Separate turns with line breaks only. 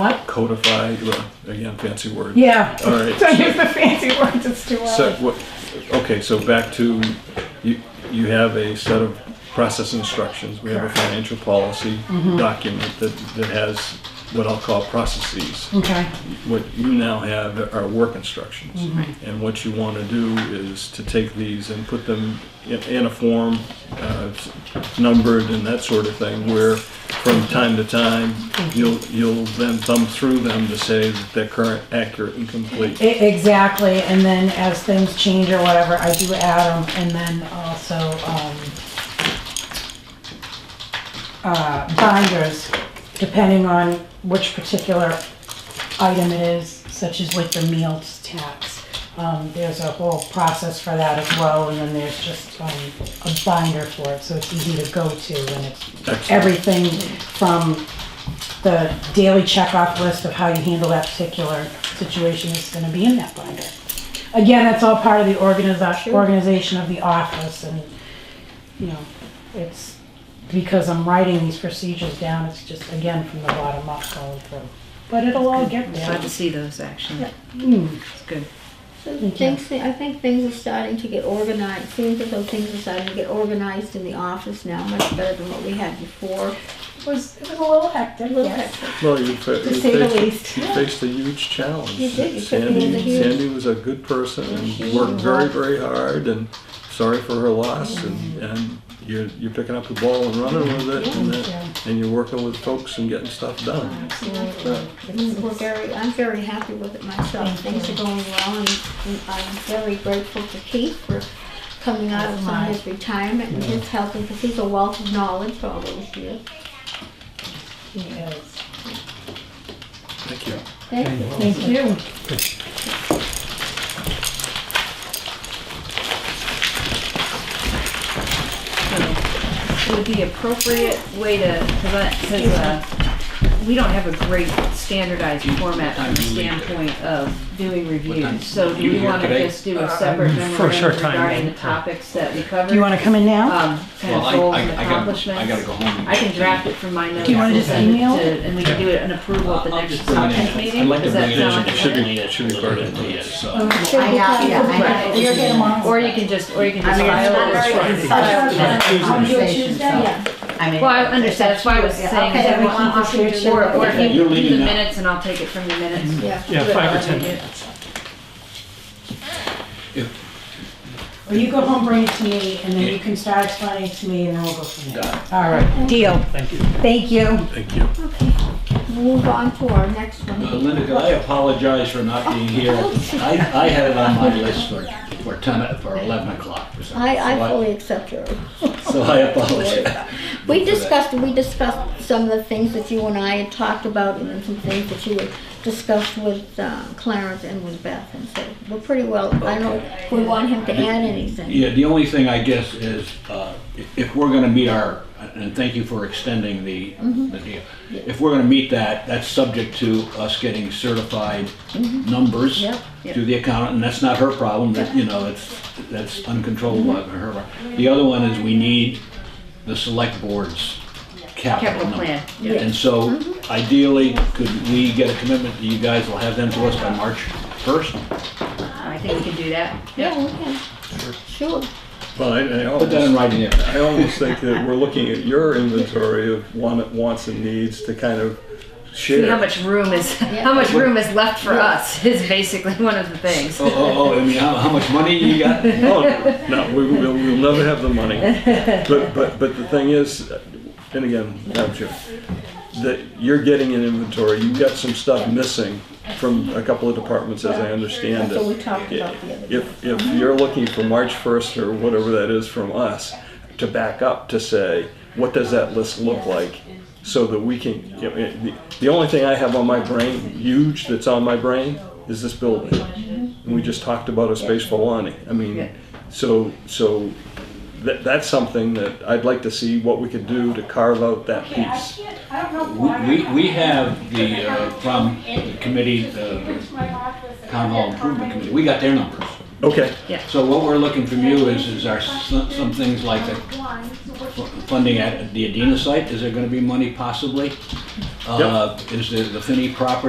What?
codify, well, again, fancy word.
Yeah.
All right.
Don't use the fancy words, it's too
So,
early.
what, okay, so back to, you, you have a set of process instructions. We have a financial policy
Mm-hmm.
document that, that has what I'll call processes.
Okay,
What you now have are work instructions. And what you want to do is to take these and put them in, in a form, uh, s- numbered and that sort of thing, where from time to time, you'll, you'll then thumb through them to say that they're current, accurate, and complete.
E- exactly, and then as things change or whatever, I do add them, and then also, um, uh, binders, depending on which particular item it is, such as with the meals tax. Um, there's a whole process for that as well, and then there's just, um, a binder for it, so it's easy to go to, and it's
Excellent.
everything from the daily checkoff list of how you handle that particular situation is gonna be in that binder. Again, that's all part of the organiza- organization of the office and, you know, it's, because I'm writing these procedures down, it's just, again, from the bottom up going through. But it'll all get there.
Glad to see those, actually.
Yeah.
Mm,
It's good.
So things, I think things are starting to get organized, seems as though things are starting to get organized in the office now, much better than what we had before.
It was, it was a little
A
hectic,
little
yes.
hectic.
Well, you fa-
To
you
say the
faced-
least.
You faced a huge challenge.
You did. You took me
Sandy,
as a huge-
Sandy was a good person and worked very, very hard and sorry for her loss and, and you're, you're picking up the ball and running with it and, that- and you're working with folks and getting stuff done.
Mm-hmm. It's- We're very, I'm very happy with it myself. Things are going well and and I'm very grateful to Keith for coming out of some of his retirement and his helping, because he's a wealth of knowledge for all those years.
Yes.
Thank you.
Thank you.
Thank you.
So, Would the appropriate way to, because uh, we don't have a great standardized format from the standpoint of doing reviews. So do we want to just do a separate
Uh, for a
memorandum
short time,
regarding
yeah.
the topics that we covered?
Do you wanna come in now?
Um, kind of
Well,
goals
I, I,
and
I gotta, I gotta
accomplishments?
go home.
I can draft it from my notes.
you wanna just
and send
email
to-
it?
And we can do it an approval at the
I'll
next
just bring it in.
subcommittee
I'd
meeting?
like to
Does that
bring it in.
sound?
It should be, it should be part of it, yes.
I got,
You're here tomorrow.
Or you can just, or you can just
I mean, it's not
file it.
very
as-
insightful
I'll do it
conversation,
Tuesday.
so,
Yeah.
I mean.
Well, I understand, that's why I was
Yeah,
saying,
okay,
is I
then we
want
can
to
just do
or,
it.
or
Okay,
if you
you're
do the
leaving now.
minutes and I'll take it from the minutes.
Yeah.
Yeah,
Whatever
five or
I
10
do.
minutes.
Or you go home, bring it to me, and then you can start explaining to me, and then we'll go from there. All right, deal.
Thank you.
Thank you.
Thank you.
Okay, move on to our next one.
Uh, Linda, could I apologize for not being here? I, I had it on my list for, for ten, for eleven o'clock or something.
I,
So
I fully accept your.
So I apologize.
We discussed, we discussed some of the things that you and I had talked about and then some things that you had discussed with uh, Clarence and with Beth. And so we're pretty well, I don't, if we want him to add anything.
Yeah, the only thing I guess is, uh, if- if we're gonna meet our, and thank you for extending the, the deal. If we're gonna meet that, that's subject to us getting certified numbers
Yep.
to the accountant, and that's not her problem, that, you know, it's, that's uncontrollable by her. The other one is we need the select board's capital
Capital
number.
plan,
And so ideally, could we get a commitment that you guys will have them to us by March first?
I think we can do that.
Yeah, we can. Sure.
Well, I, I
Put that in
almost,
writing there.
I almost think that we're looking at your inventory of want, wants and needs to kind of share.
See how much room is, how much room is left for us is basically one of the things.
Oh, oh, oh, I mean, how, how much money you got?
Oh, no, we, we'll, we'll never have the money. But, but, but the thing is, and again, Madam Chair, that you're getting an inventory, you've got some stuff missing from a couple of departments, as I understand
That's what we
it.
talked about the other day. Uh-huh.
If, if you're looking for March first or whatever that is from us, to back up to say, what does that list look like? So that we can, you know, the, the only thing I have on my brain, huge, that's on my brain, is this building.
Mm-hmm.
And we just talked about a space for Lonnie. I
Yeah.
mean, so, so that, that's something that I'd like to see what we could do to carve out that piece.
I don't know
We, we- we have the, uh, from the committee, the town hall improvement committee, we got their numbers.
Okay,
So what we're looking from you is, is our, some, some things like the funding at the Adena site, is there gonna be money possibly? uh, is the the Finney property